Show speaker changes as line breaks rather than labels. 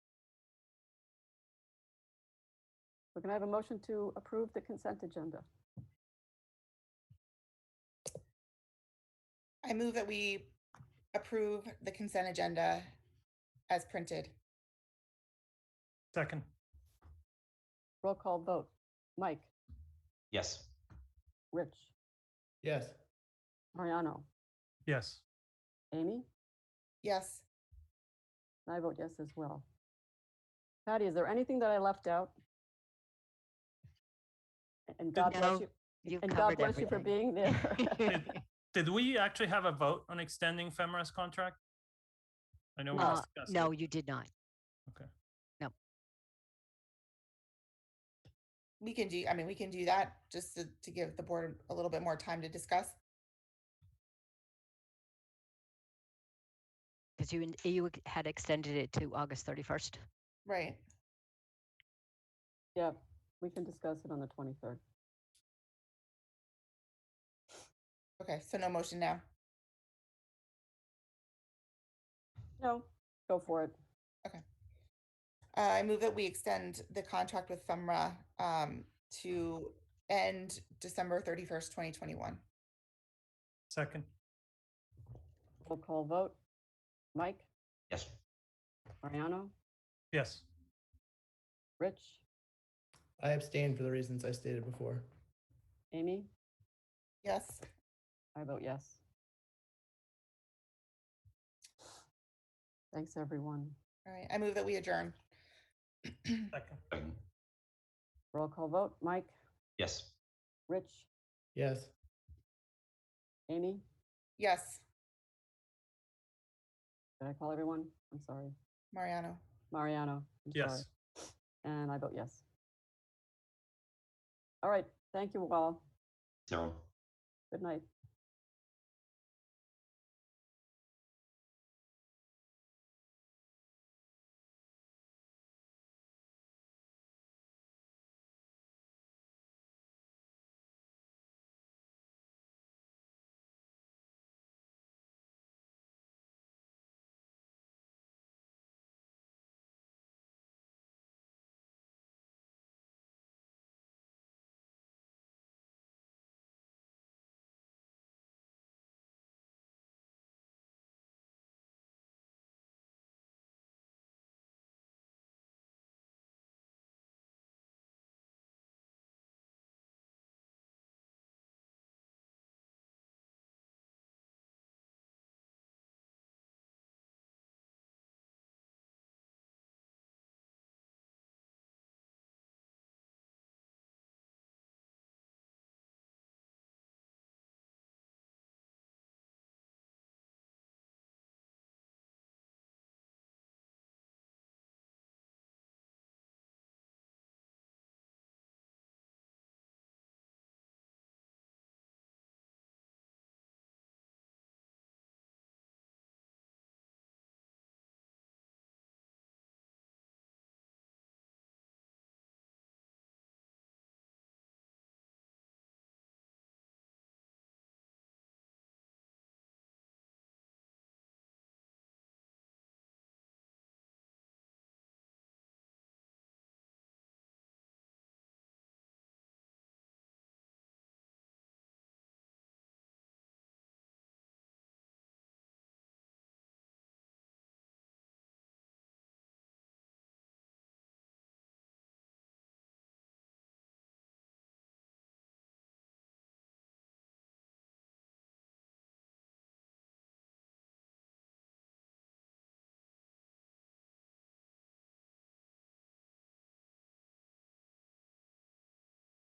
We're going to have a motion to approve the consent agenda.
I move that we approve the consent agenda as printed.
Second,
Roll call vote. Mike,
Yes.
Rich,
yes,
Mariano,
yes.
Amy,
Yes,
and I vote yes as well. Patty, is there anything that I left out? And God
No,
bless you,
You've
and God
covered
bless you for
everything.
being there.
Did we actually have a vote on extending FEMRA's contract? I know we
Uh,
discussed. it.
No, you did not.
we can do, I mean, we can do that just to, to give the board a little bit more time to discuss.
Because you, in- you ex- had extended it to August 31st.
Right.
Yeah, we can discuss it on the 23rd.
Okay, so no motion now.
No, go for it.
Uh, I move that we extend the contract with FEMRA um, to end December thirty-first, twenty twenty-one.
Second,
Roll call vote. Mike,
Yes.
Mariano,
yes.
Rich,
I abstain for the reasons I stated before.
Amy,
Yes,
I vote yes. Thanks, everyone.
all right, I move that we adjourn.
Second,
Second.
Roll call vote. Mike,
Yes.
Rich,
Yes.
Amy,
Yes,
did I call everyone? I'm sorry.
Mariano.
Mariano. I'm sorry.
yes.
And I vote yes. All right. Thank you all.
Zero.
Good night.